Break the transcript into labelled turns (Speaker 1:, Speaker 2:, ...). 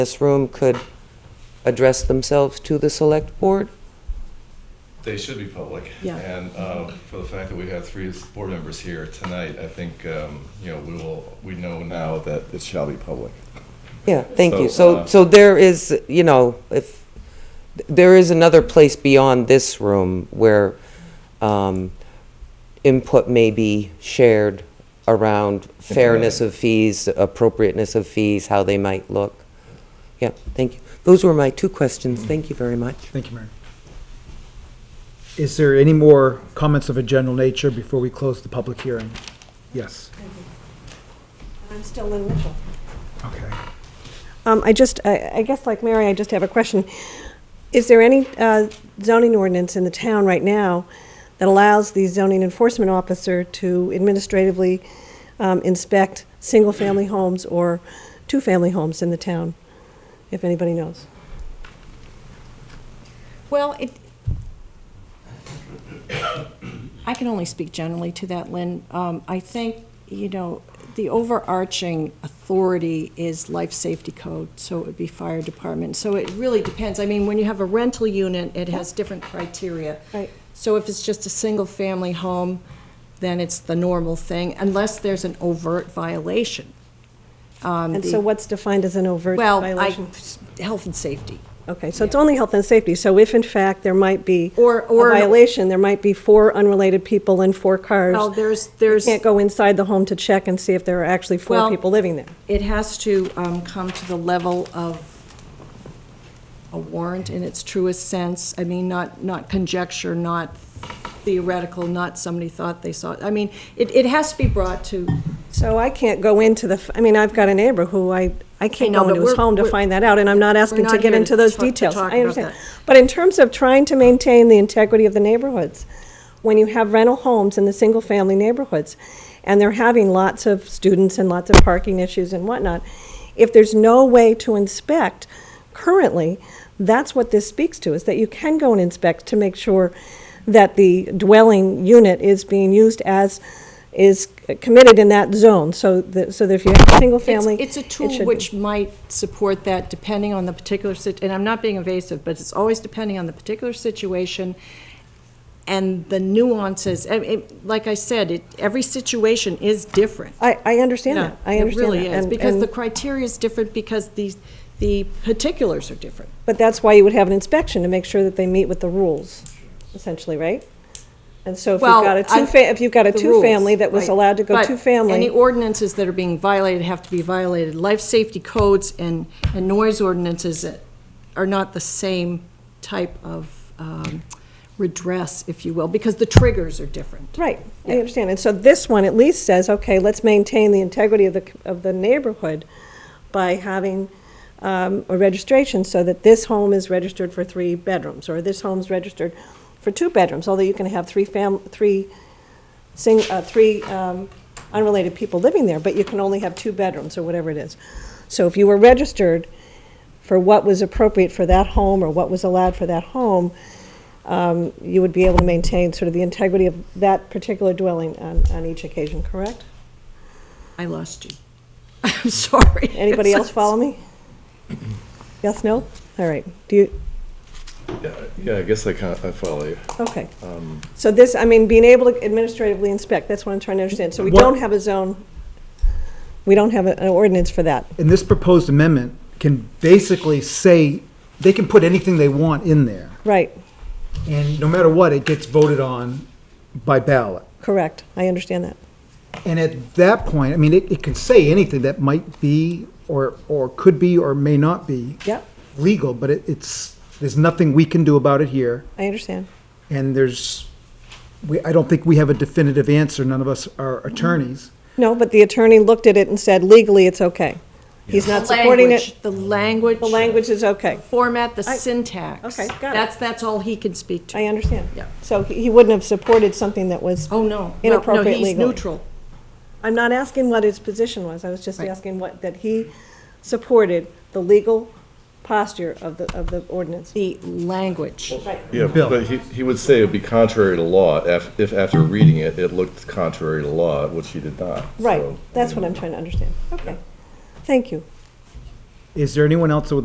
Speaker 1: this room could address themselves to the select board?
Speaker 2: They should be public.
Speaker 3: Yeah.
Speaker 2: And uh, for the fact that we have three board members here tonight, I think, um, you know, we will, we know now that it shall be public.
Speaker 1: Yeah, thank you.
Speaker 2: So,
Speaker 1: So,
Speaker 2: uh,
Speaker 1: so there is, you know, if, there is another place beyond this room where um, input may be shared around fairness of fees, appropriateness of fees, how they might look. Yeah, thank you. Those were my two
Speaker 2: Mm-hmm.
Speaker 1: questions. Thank you very much.
Speaker 4: Thank you, Mary. Is there any more comments of a general nature before we close the public hearing? Yes,
Speaker 5: I'm still Lynn Mitchell.
Speaker 4: okay.
Speaker 5: Um, I just, I, I guess like Mary, I just have a question. Is there any, uh, zoning ordinance in the town right now that allows the zoning enforcement officer to administratively, um, inspect single-family homes or two-family homes in the town? If anybody knows.
Speaker 3: Well, it, I can only speak generally to that, Lynn. Um, I think, you know, the overarching authority is life safety code, so it would be fire department. So it really depends. I mean, when you have a rental unit, it has different criteria.
Speaker 5: Right.
Speaker 3: So if it's just a single-family home, then it's the normal thing, unless there's an overt violation.
Speaker 5: And so what's defined as an overt
Speaker 3: Um, Well,
Speaker 5: violation?
Speaker 3: I, health and safety.
Speaker 5: Okay, so it's only health and safety, so if in fact there might be
Speaker 3: Or-
Speaker 5: a
Speaker 3: or-
Speaker 5: violation, there might be four unrelated people and four cars.
Speaker 3: Well, there's- there's-
Speaker 5: You can't go inside the home to check and see if there are actually four
Speaker 3: Well-
Speaker 5: people living there.
Speaker 3: it has to um, come to the level of a warrant in its truest sense. I mean, not, not conjecture, not theoretical, not somebody thought they saw. it. I mean, it, it has to be brought to,
Speaker 5: So I can't go into the, f- I mean, I've got a neighbor who I, I can't
Speaker 3: know,
Speaker 5: go
Speaker 3: but
Speaker 5: into his
Speaker 3: we're-
Speaker 5: home to
Speaker 3: we're-
Speaker 5: find that out, and I'm not asking
Speaker 3: not
Speaker 5: to get
Speaker 3: here to
Speaker 5: into those
Speaker 3: talk- to
Speaker 5: details.
Speaker 3: talk
Speaker 5: I
Speaker 3: about
Speaker 5: understand.
Speaker 3: that.
Speaker 5: But in terms of trying to maintain the integrity of the neighborhoods, when you have rental homes in the single-family neighborhoods, and they're having lots of students and lots of parking issues and whatnot, if there's no way to inspect currently, that's what this speaks to, is that you can go and inspect to make sure that the dwelling unit is being used as, is committed in that zone, so that, so that if you have a
Speaker 3: it's,
Speaker 5: single-family.
Speaker 3: it's a tool
Speaker 5: should-
Speaker 3: which might support that depending on the particular, sit- and I'm not being evasive, but it's always depending on the particular situation and the nuances. I- it- Like I said, it, every situation is different.
Speaker 5: I, I understand that, I
Speaker 3: Yeah,
Speaker 5: understand that.
Speaker 3: It really is,
Speaker 5: and-
Speaker 3: because
Speaker 5: and-
Speaker 3: the criteria is different, because the, the particulars are different.
Speaker 5: But that's why you would have an inspection, to make sure that they meet with the rules, essentially, right? And so if you've
Speaker 3: Well,
Speaker 5: got a
Speaker 3: I-
Speaker 5: two, fa- if you've got a
Speaker 3: the rules,
Speaker 5: two-family that was
Speaker 3: right.
Speaker 5: allowed to go
Speaker 3: But Any
Speaker 5: two-family,
Speaker 3: ordinances that are being violated have to be violated. Life safety codes and, and noise ordinances are not the same type of um, redress, if you will, because the triggers are different.
Speaker 5: right, I understand. And so this one at least says, okay, let's maintain the integrity of the, c- of the neighborhood by having um, a registration so that this home is registered for three bedrooms, or this home's registered for two bedrooms, although you can have three fam, three sing, uh, three, um, unrelated people living there, but you can only have two bedrooms or whatever it is. So if you were registered for what was appropriate for that home or what was allowed for that home, um, you would be able to maintain sort of the integrity of that particular dwelling on, on each occasion, correct?
Speaker 3: I lost you. I'm sorry.
Speaker 5: Anybody else follow me? Yes, no? All right. Do you,
Speaker 2: Yeah, Yeah, I guess I kind of, I follow you.
Speaker 5: okay. So this, I mean, being able to administratively inspect, that's what I'm trying to understand. So we don't
Speaker 4: What-
Speaker 5: have a zone, we don't have a- an ordinance for that.
Speaker 4: And this proposed amendment can basically say, they can put anything they want in there,
Speaker 5: Right.
Speaker 4: and no matter what, it gets voted on by ballot.
Speaker 5: Correct, I understand that.
Speaker 4: And at that point, I mean, it, it can say anything that might be, or, or could be, or may not be
Speaker 5: Yep,
Speaker 4: legal, but it, it's, there's nothing we can do about it here.
Speaker 5: I understand.
Speaker 4: And there's, we, I don't think we have a definitive answer, none of us are attorneys.
Speaker 5: No, but the attorney looked at it and said legally, it's okay. He's not supporting it.
Speaker 3: The language.
Speaker 5: The language is okay.
Speaker 3: Format, the
Speaker 5: I-
Speaker 3: syntax.
Speaker 5: okay, got it.
Speaker 3: That's, that's all he can speak to.
Speaker 5: I understand.
Speaker 3: Yeah.
Speaker 5: So he he wouldn't have supported something that was,
Speaker 3: Oh, no. No,
Speaker 5: Inappropriate
Speaker 3: No, he's
Speaker 5: legally.
Speaker 3: neutral.
Speaker 5: I'm not asking what his position was, I was just
Speaker 3: Right.
Speaker 5: asking what, that he supported the legal posture of the, of the ordinance.
Speaker 3: The language.
Speaker 2: Yeah,
Speaker 4: Bill.
Speaker 2: but he, he would say it would be contrary to law if, if after reading it, it looked contrary to law, which he did not.
Speaker 5: Right,
Speaker 2: So, I
Speaker 5: that's
Speaker 2: mean,
Speaker 5: what I'm trying to understand. Okay, thank you.
Speaker 4: Is there anyone else that would